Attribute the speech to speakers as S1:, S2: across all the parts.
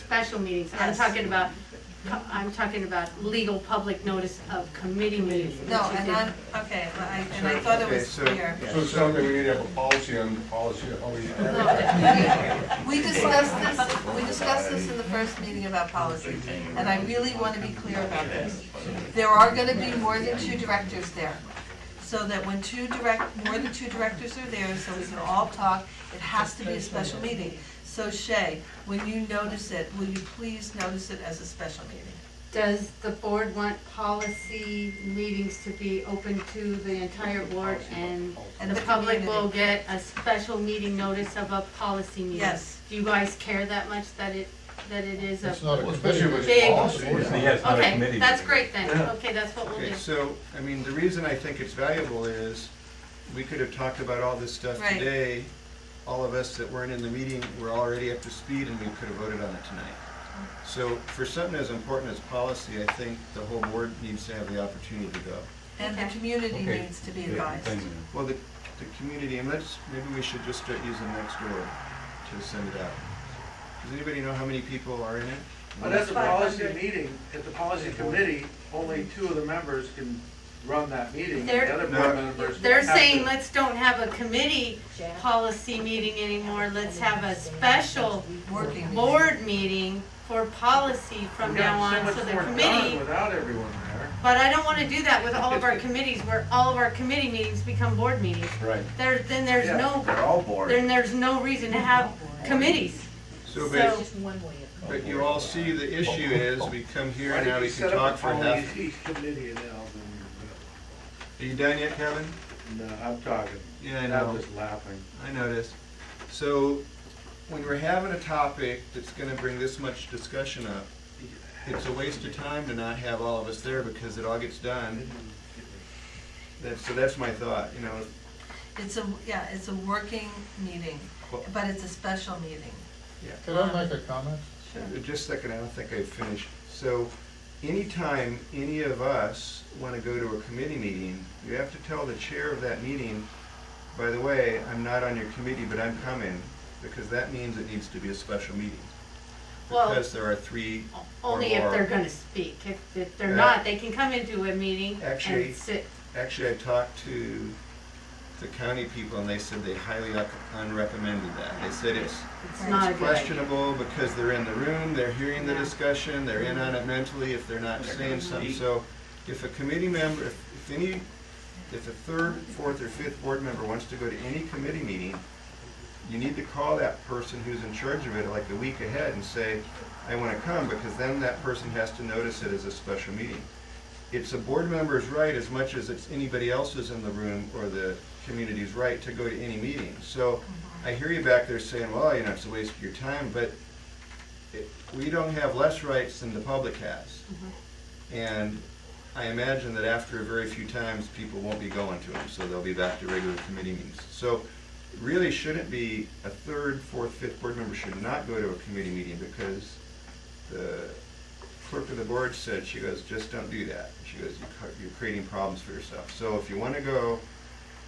S1: special meetings, I'm
S2: Yes.
S1: talking about, I'm talking about legal public notice of committee meetings.
S2: No,
S1: which you
S2: and
S1: did.
S2: I'm, okay, well, I- and I thought it was
S3: Okay, so-
S2: clear.
S3: yeah.
S4: So it sounds like we need to have a policy on the policy of how we.
S2: We discussed this, we discussed this in the first meeting about policy, and I really want to be clear about this. There are gonna be more than two directors there, so that when two direct, more than two directors are there, so we can all talk, it has to be a special meeting. So Shay, when you notice it, will you please notice it as a special meeting?
S1: Does the board want policy meetings to be open to the entire board and
S2: And
S1: the
S2: the
S1: public will
S2: community.
S1: get a special meeting notice of a policy meeting?
S2: Yes.
S1: Do you guys care that much that it, that it is a?
S5: It's not a
S4: Well,
S5: committee.
S4: Especially with
S1: Big-
S4: policy.
S6: Yeah, it's not a
S1: Okay,
S6: committee
S1: that's
S6: meeting.
S1: great then,
S3: Yeah.
S1: okay, that's what we'll do.
S3: Okay, so, I mean, the reason I think it's valuable is, we could have talked about all this stuff
S2: Right.
S3: today. All of us that weren't in the meeting were already up to speed and we could have voted on it tonight. So for something as important as policy, I think the whole board needs to have the opportunity to go.
S2: And the community
S6: Okay.
S2: needs to be
S6: Yeah,
S2: advised.
S6: thank you.
S3: Well, the, the community, and let's, maybe we should just start using Nextdoor to send it out. Does anybody know how many people are in it?
S7: But at the policy meeting, at the policy committee, only two of the members can run that meeting.
S1: They're-
S7: The other
S3: No.
S7: board members.
S1: They're
S7: have to-
S1: saying, let's don't have a committee policy meeting anymore, let's have a special
S2: Working meeting.
S1: board meeting for policy from
S7: We've gotten
S1: now on,
S7: so
S1: so
S7: much
S1: the
S7: more done
S1: committee,
S7: Without everyone there.
S1: but I don't wanna do that with all of our committees, where all of our committee meetings become board meetings.
S6: Right.
S1: There, then there's
S7: Yeah.
S1: no,
S6: They're all bored.
S1: then there's no reason to have committees.
S3: So,
S1: So-
S3: but,
S8: Just one way of.
S3: but you all see the issue is, we come here
S7: Why
S3: and
S7: did
S3: now
S7: you
S3: we
S7: set
S3: can
S7: up
S3: talk
S7: a
S3: for half.
S7: policy Committee and all,
S3: Are you done yet, Kevin?
S7: then, no, uh, I'm talking,
S3: Yeah, I
S7: I'm
S3: know,
S7: just laughing.
S3: I noticed. So, when we're having a topic that's gonna bring this much discussion up, it's a waste of time to not have all of us there because it all gets done. That's, so that's my thought, you know,
S2: It's a, yeah, it's a working meeting,
S3: Well-
S2: but it's a special meeting. Um,
S5: Can I make a comment?
S3: Uh, Just a second, I don't think I've finished. So anytime any of us want to go to a committee meeting, you have to tell the chair of that meeting, by the way, I'm not on your committee, but I'm coming, because that means it needs to be a special meeting.
S1: Well-
S3: Because there are three or
S1: Only if they're
S3: more.
S1: gonna speak, if, if
S3: Yeah.
S1: they're not, they can come into a meeting
S3: Actually-
S1: and sit.
S3: Actually, I talked to the county people and they said they highly un- unrecommended that. They said it's
S1: It's not a good idea.
S3: questionable because they're in the room, they're hearing the
S1: Yeah.
S3: discussion, they're in on it mentally if they're not saying something. So if a committee member, if if any, if a third, fourth, or fifth board member wants to go to any committee meeting, you need to call that person who's in charge of it like the week ahead and say, I want to come, because then that person has to notice it as a special meeting. It's a board member's right as much as it's anybody else's in the room or the community's right to go to any meeting. So I hear you back there saying, well, you know, it's a waste of your time, but it- we don't have less rights than the public has.
S1: Mm-hmm.
S3: And I imagine that after a very few times, people won't be going to them, so they'll be back to regular committee meetings. So it really shouldn't be, a third, fourth, fifth board member should not go to a committee meeting because the clerk of the board said, she goes, just don't do that. She goes, "You cr- you're creating problems for yourself. So if you want to go,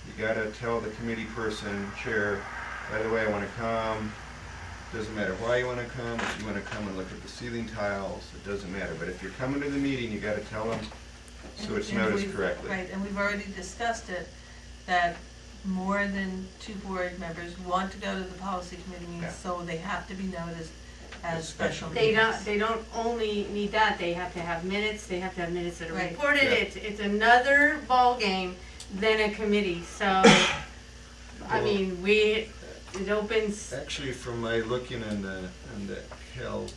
S3: you gotta tell the committee person, chair, by the way, I wanna come. Doesn't matter why you wanna come, if you wanna come and look at the ceiling tiles, it doesn't matter. But if you're coming to the meeting, you gotta tell them, so it's
S2: And- and
S3: noticed
S2: we've-
S3: correctly.
S2: Right, and we've already discussed it, that more than two board members want to go to the policy committee
S3: Yeah.
S2: meetings, so they have to be noticed
S3: As
S2: as
S3: special
S2: special
S1: They
S2: meetings.
S1: don't, they don't only need that, they have to have minutes, they have to have minutes that are
S2: Right.
S1: reported,
S3: Yeah.
S1: it's, it's another ballgame than a committee, so, I
S3: Well-
S1: mean, we, it opens,
S3: Actually, from my looking on the, on the Cal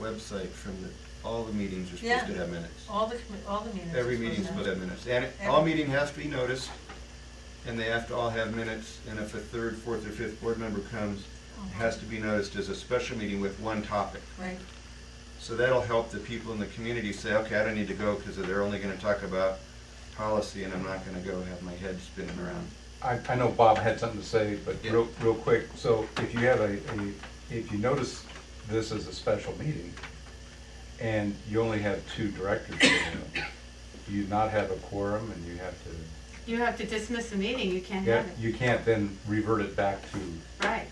S3: website, from the, all the meetings are supposed to
S2: Yeah.
S3: have minutes.
S2: All the, commi- all the meetings. are
S3: Every
S2: supposed to
S3: meeting's supposed to
S2: have-
S3: have minutes. And it- all
S2: Every-
S3: meeting has to be noticed, and they have to all have minutes. And if a third, fourth, or fifth board member comes,
S2: Uh-huh.
S3: it has to be noticed as a special meeting with one topic.
S2: Right,
S3: So that'll help the people in the community say, okay, I don't need to go because they're only gonna talk about policy and I'm not gonna go have my head spinning around.
S6: I, I know Bob had something to say, but
S3: Yeah.
S6: real, real quick, so if you have a, a, if you notice this is a special meeting, and you only have two directors, there, do you not have a quorum, and you have to,
S1: you have to dismiss a meeting, you can't
S6: yeah,
S1: have it,
S6: you can't then revert it back to,
S1: right.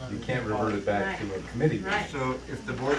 S5: No.
S6: you can't revert it back to a committee meeting.
S1: Right.
S3: So if the board